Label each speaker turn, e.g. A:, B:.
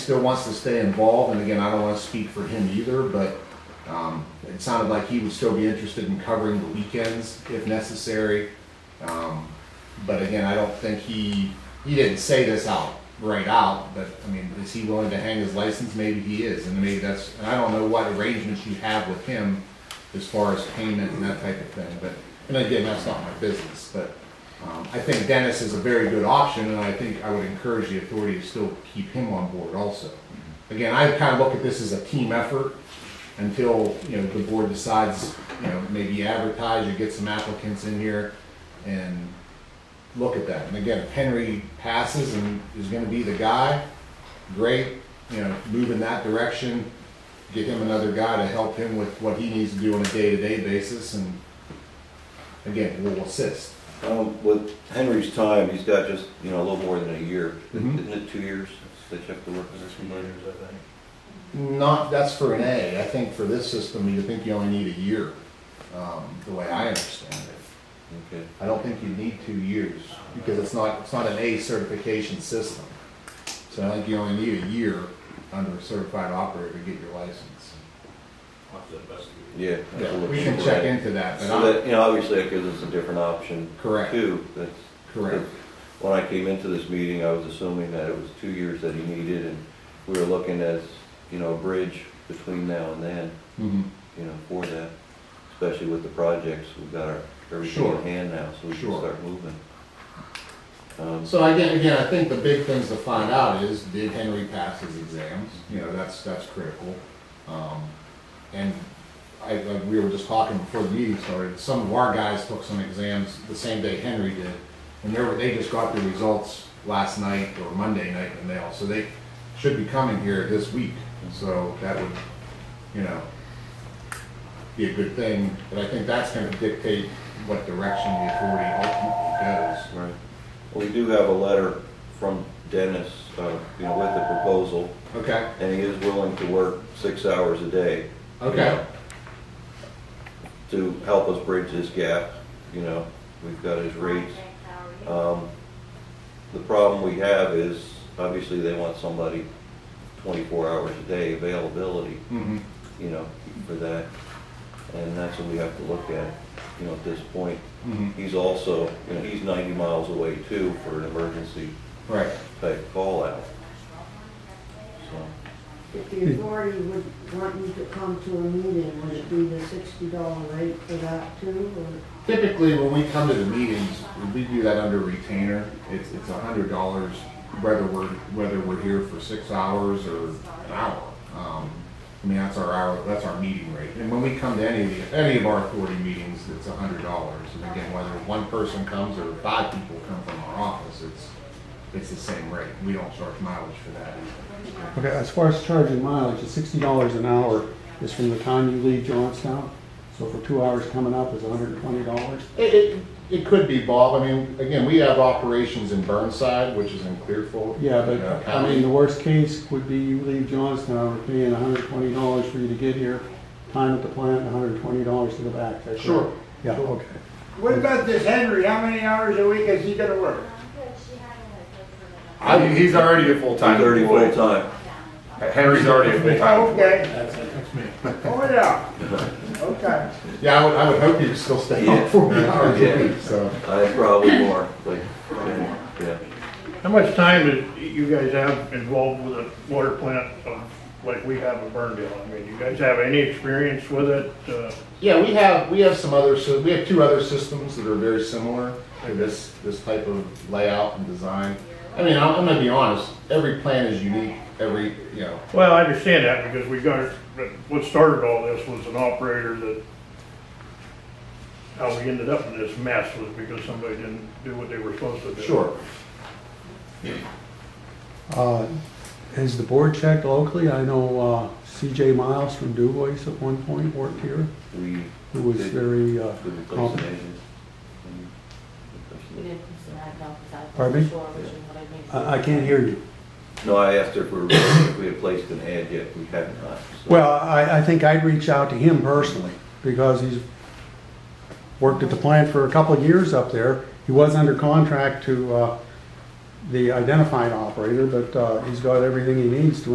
A: still wants to stay involved, and again, I don't want to speak for him either, but um, it sounded like he would still be interested in covering the weekends if necessary. Um, But again, I don't think he, he didn't say this out, right out, but I mean, is he willing to hang his license? Maybe he is, and maybe that's, and I don't know what arrangements you have with him as far as payment and that type of thing, but, and again, that's not my business, but um, I think Dennis is a very good option, and I think I would encourage the authority to still keep him on board also. Again, I kind of look at this as a team effort until, you know, the board decides, you know, maybe advertise or get some applicants in here and look at that. And again, if Henry passes and is gonna be the guy, great, you know, move in that direction. Get him another guy to help him with what he needs to do on a day-to-day basis and again, we'll assist.
B: Um, with Henry's time, he's got just, you know, a little more than a year.
A: Mhm.
B: Isn't it two years since they checked the work
C: Some
B: position?
C: minors, I think.
A: Not, that's for an A. I think for this system, you think you only need a year, um, the way I understand it.
B: Okay.
A: I don't think you need two years, because it's not, it's not an A certification system. So I think you only need a year under a certified operator to get your license.
C: I'll have to investigate.
B: Yeah. that's a
A: Yeah,
B: little
A: we can
B: cheaper,
A: check
B: right?
A: into that, but
B: So
A: I'm,
B: that, you know, obviously that gives us a different option
A: correct,
B: too. That's,
A: correct.
B: when I came into this meeting, I was assuming that it was two years that he needed and we were looking at, you know, a bridge between now and then,
A: Mhm,
B: you know, for that. Especially with the projects, we've got our, everything
A: Sure.
B: in hand now, so we can
A: Sure.
B: start moving. Um,
A: So again, again, I think the big things to find out is, did Henry pass his exams? You know, that's, that's critical. Um, And I, I- we were just talking before the meeting started, some of our guys took some exams the same day Henry did. And they were, they just got their results last night or Monday night in the mail, so they should be coming here this week. So that would, you know, be a good thing, but I think that's gonna dictate what direction the authority ultimately goes.
B: Right. Well, we do have a letter from Dennis, uh, you know, with the proposal,
A: Okay?
B: and he is willing to work six hours a day. you
A: Okay.
B: know, To help us bridge this gap, you know, we've got his rates. Um, The problem we have is, obviously, they want somebody twenty-four hours a day availability,
A: Mm-hmm.
B: you know, for that. And that's what we have to look at, you know, at this point.
A: Mm-hmm.
B: He's also, you know, he's ninety miles away too for an emergency
A: Right.
B: type call out. So,
D: If the authority would want you to come to a meeting, would it be the sixty dollar rate for that too, or?
A: Typically, when we come to the meetings, we do that under retainer. It's it's a hundred dollars whether we're whether we're here for six hours or an hour. Um, I mean that's our hour that's our meeting rate. And when we come to any of the, any of our authority meetings, it's a hundred dollars. And again, whether one person comes or five people come from our office, it's it's the same rate. We don't charge mileage for that.
E: Okay, as far as charging mileage, it's sixty dollars an hour is from the time you leave Johnstown. So for two hours coming up is hundred and twenty dollars.
A: It, it, it could be, Bob. I mean, again, we have operations in Burnside, which is in Clearfield.
E: Yeah,
A: uh,
E: but I
A: County.
E: mean, the worst case would be you leave Johnstown, we're paying hundred and twenty dollars for you to get here, time at the plant, hundred and twenty dollars to go back. Is that correct?
A: Sure.
E: Yeah, okay.
F: What about this Henry? How many hours a week is he gonna work?
G: I mean, he's already a full-time
B: thirty
G: employee.
B: full-time.
G: Henry's already a full-time employee.
F: Okay. That's me. Oh, yeah. Okay.
A: Yeah, I would, I would hope you'd still stay
B: Yeah.
A: up for me hours
B: Yeah.
A: a week, so.
B: I probably more, like, yeah.
H: How much time is you guys have involved with a water plant uh, like we have at Burndale? I mean, you guys have any experience with it? Uh,
A: Yeah, we have, we have some other, so we have two other systems that are very similar to this, this type of layout and design. I mean, I'm, I'm gonna be honest, every plan is unique, every, you know,
H: Well, I understand that because we got, but what started all this was an operator that, how we ended up in this mess was because somebody didn't do what they were supposed to do.
A: sure.
E: Uh, Has the board checked locally? I know uh, CJ Miles from Dubois at one point worked here,
B: We
E: who was
B: did-
E: very uh,
B: did replace an
E: competent.
B: agent. and
I: You
B: replace
I: didn't decide about the side.
E: Pardon me?
I: Sure, which is what I mean.
E: I I can't hear you.
B: it. No, I asked her if we were, if we had placed an ad yet, we have not. so-
E: Well, I, I think I'd reach out to him personally, because he's worked at the plant for a couple of years up there. He was under contract to, uh, the identifying operator, but, uh, he's got everything he needs to